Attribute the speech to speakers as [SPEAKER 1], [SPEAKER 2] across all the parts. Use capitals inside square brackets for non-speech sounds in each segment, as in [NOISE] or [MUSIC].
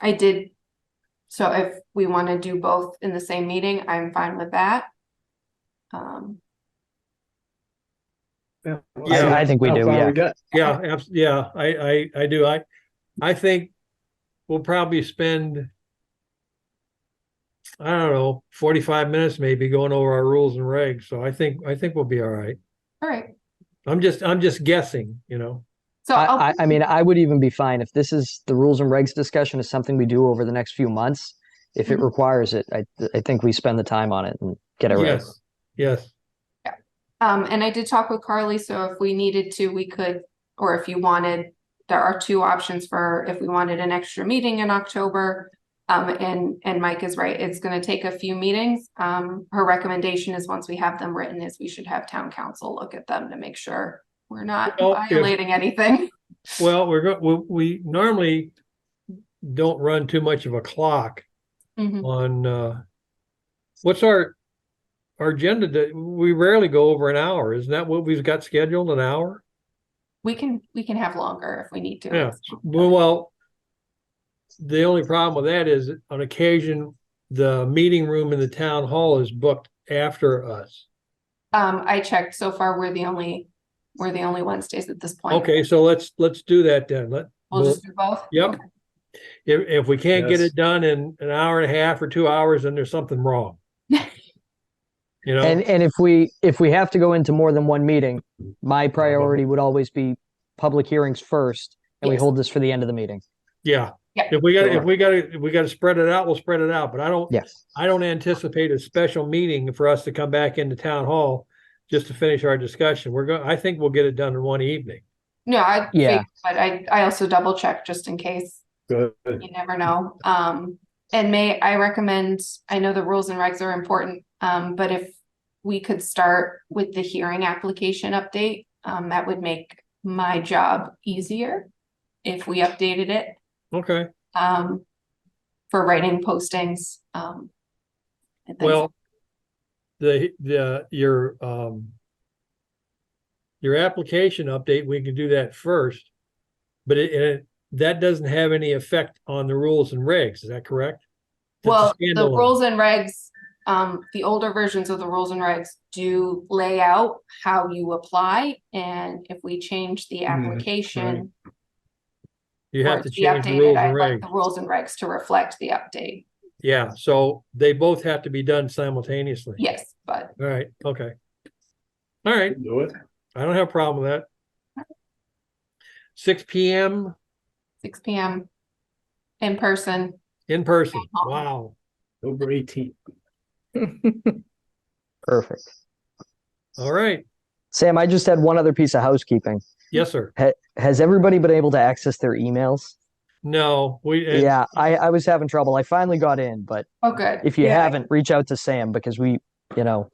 [SPEAKER 1] I did. So if we want to do both in the same meeting, I'm fine with that. Um,
[SPEAKER 2] Yeah.
[SPEAKER 3] I, I think we
[SPEAKER 2] How
[SPEAKER 3] do,
[SPEAKER 2] far
[SPEAKER 3] yeah.
[SPEAKER 2] got?
[SPEAKER 4] Yeah,
[SPEAKER 1] Yeah.
[SPEAKER 4] abs- yeah, I, I, I do. I, I think we'll probably spend, I don't know, forty-five minutes maybe going over our rules and regs. So I think, I think we'll be all right.
[SPEAKER 1] all right,
[SPEAKER 4] I'm just, I'm just guessing, you know?
[SPEAKER 1] so
[SPEAKER 3] I,
[SPEAKER 1] I'll,
[SPEAKER 3] I, I mean, I would even be fine if this is the rules and regs discussion is something we do over the next few months. If it
[SPEAKER 1] Mhm.
[SPEAKER 3] requires it, I, I think we spend the time on it and get it right.
[SPEAKER 4] Yes, yes.
[SPEAKER 1] um, and I did talk with Carly, so if we needed to, we could, or if you wanted. There are two options for if we wanted an extra meeting in October. Um, and, and Mike is right, it's gonna take a few meetings. Um, her recommendation is once we have them written is we should have town council look at them to make sure. We're not
[SPEAKER 4] Well, if-
[SPEAKER 1] violating anything. [LAUGHS]
[SPEAKER 4] Well, we're, go- we, we normally don't run too much of a clock
[SPEAKER 1] Mhm.
[SPEAKER 4] on, uh, what's our, our agenda that, we rarely go over an hour. Isn't that what we've got scheduled, an hour?
[SPEAKER 1] We can, we can have longer if we need to.
[SPEAKER 4] Yeah, well, well, the only problem with that is on occasion, the meeting room in the town hall is booked after us.
[SPEAKER 1] Um, I checked so far, we're the only, we're the only Wednesdays at this point.
[SPEAKER 4] Okay, so let's, let's do that then. Let,
[SPEAKER 1] We'll
[SPEAKER 4] we'll-
[SPEAKER 1] just do both?
[SPEAKER 4] Yep.
[SPEAKER 1] Okay.
[SPEAKER 4] if, if we can't get
[SPEAKER 2] Yes.
[SPEAKER 4] it done in an hour and a half or two hours, then there's something wrong. You know,
[SPEAKER 3] And, and if we, if we have to go into more than one meeting, my priority would always be public hearings first. And we
[SPEAKER 1] Yes.
[SPEAKER 3] hold this for the end of the meeting.
[SPEAKER 4] yeah.
[SPEAKER 1] Yeah.
[SPEAKER 4] If we gotta, if
[SPEAKER 3] Sure.
[SPEAKER 4] we gotta, if we gotta spread it out, we'll spread it out, but I don't,
[SPEAKER 3] Yes.
[SPEAKER 4] I don't anticipate a special meeting for us to come back into town hall just to finish our discussion. We're going, I think we'll get it done in one evening.
[SPEAKER 1] No, I,
[SPEAKER 3] Yeah.
[SPEAKER 1] figured, but I, I also double check just in case,
[SPEAKER 2] Good.
[SPEAKER 1] you never know. Um, and may I recommend, I know the rules and regs are important, um, but if we could start with the hearing application update, um, that would make my job easier if we updated it.
[SPEAKER 4] Okay.
[SPEAKER 1] um, for writing postings, um. and things.
[SPEAKER 4] Well, the, the, your, um, your application update, we can do that first, but it, it, that doesn't have any effect on the rules and regs, is that correct? That's a
[SPEAKER 1] Well, the
[SPEAKER 4] standalone.
[SPEAKER 1] rules and regs, um, the older versions of the rules and regs do lay out how you apply. And if we change the application.
[SPEAKER 4] Mm, You
[SPEAKER 1] for
[SPEAKER 4] have
[SPEAKER 1] it
[SPEAKER 4] to
[SPEAKER 1] be
[SPEAKER 4] change the
[SPEAKER 1] updated,
[SPEAKER 4] rules
[SPEAKER 1] I'd
[SPEAKER 4] and
[SPEAKER 1] like
[SPEAKER 4] regs.
[SPEAKER 1] The rules and regs to reflect the update.
[SPEAKER 4] Yeah, so they both have to be done simultaneously.
[SPEAKER 1] Yes, but
[SPEAKER 4] All right, okay. All right,
[SPEAKER 2] Do it.
[SPEAKER 4] I don't have a problem with that. Six P M
[SPEAKER 1] six P M. In person,
[SPEAKER 4] in person.
[SPEAKER 1] Uh-huh.
[SPEAKER 4] Wow,
[SPEAKER 2] October eighteenth.
[SPEAKER 3] Perfect.
[SPEAKER 4] all right.
[SPEAKER 3] Sam, I just had one other piece of housekeeping.
[SPEAKER 4] Yes, sir.
[SPEAKER 3] Has everybody been able to access their emails?
[SPEAKER 4] No, we. and-
[SPEAKER 3] Yeah, I, I was having trouble. I finally got in, but
[SPEAKER 1] oh, good.
[SPEAKER 3] if you
[SPEAKER 1] Yeah,
[SPEAKER 3] haven't, reach out to Sam because we, you know,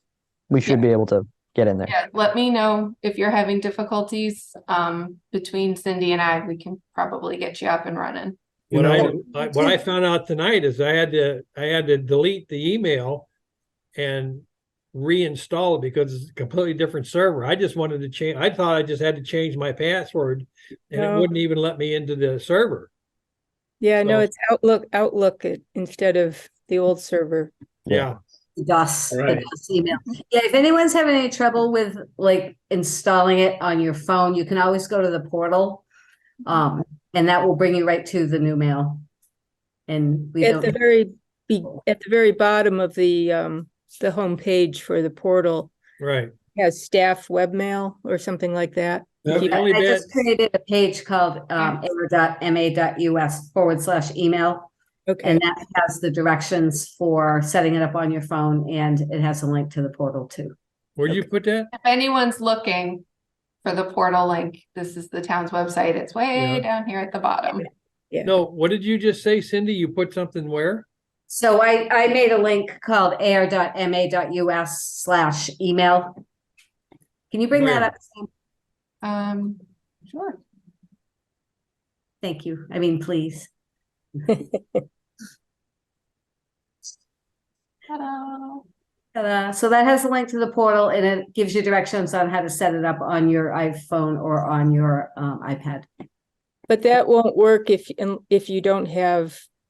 [SPEAKER 3] we should be able to get in there.
[SPEAKER 1] Yeah, let me know if you're having difficulties, um, between Cindy and I, we can probably get you up and running.
[SPEAKER 2] You
[SPEAKER 4] What I,
[SPEAKER 2] know,
[SPEAKER 4] I- what I found out tonight is I had to, I had to delete the email and reinstall it because it's a completely different server. I just wanted to change, I thought I just had to change my password and it
[SPEAKER 5] No.
[SPEAKER 4] wouldn't even let me into the server.
[SPEAKER 5] Yeah, no,
[SPEAKER 4] So-
[SPEAKER 5] it's Outlook, Outlook it- instead of the old server.
[SPEAKER 4] Yeah,
[SPEAKER 6] DOS, the
[SPEAKER 2] Right.
[SPEAKER 6] DOS email. Yeah, if anyone's having any trouble with like installing it on your phone, you can always go to the portal. Um, and that will bring you right to the new mail. And we
[SPEAKER 5] At the
[SPEAKER 6] don't,
[SPEAKER 5] very, be at the very bottom of the, um, the homepage for the portal,
[SPEAKER 4] right.
[SPEAKER 5] it has staff webmail or something like that.
[SPEAKER 4] The
[SPEAKER 5] you-
[SPEAKER 6] I
[SPEAKER 4] only
[SPEAKER 6] I
[SPEAKER 4] bad,
[SPEAKER 6] just created a page called um era.ma.us forward slash email.
[SPEAKER 5] Okay,
[SPEAKER 6] And that has the directions for setting it up on your phone and it has a link to the portal too.
[SPEAKER 4] where'd you put that?
[SPEAKER 1] If anyone's looking for the portal link, this is the town's website. It's
[SPEAKER 4] Yeah.
[SPEAKER 1] way down here at the bottom.
[SPEAKER 4] No, what did you just say, Cindy? You put something where?
[SPEAKER 6] So I, I made a link called air.ma.us slash email. Can you bring that
[SPEAKER 4] Where?
[SPEAKER 6] up? Sam?
[SPEAKER 1] Um, sure.
[SPEAKER 6] Thank you. I mean, please.
[SPEAKER 1] Ta-da.
[SPEAKER 6] Ta-da. So that has a link to the portal and it gives you directions on how to set it up on your iPhone or on your um, iPad.
[SPEAKER 5] but that won't work if, un- if you don't have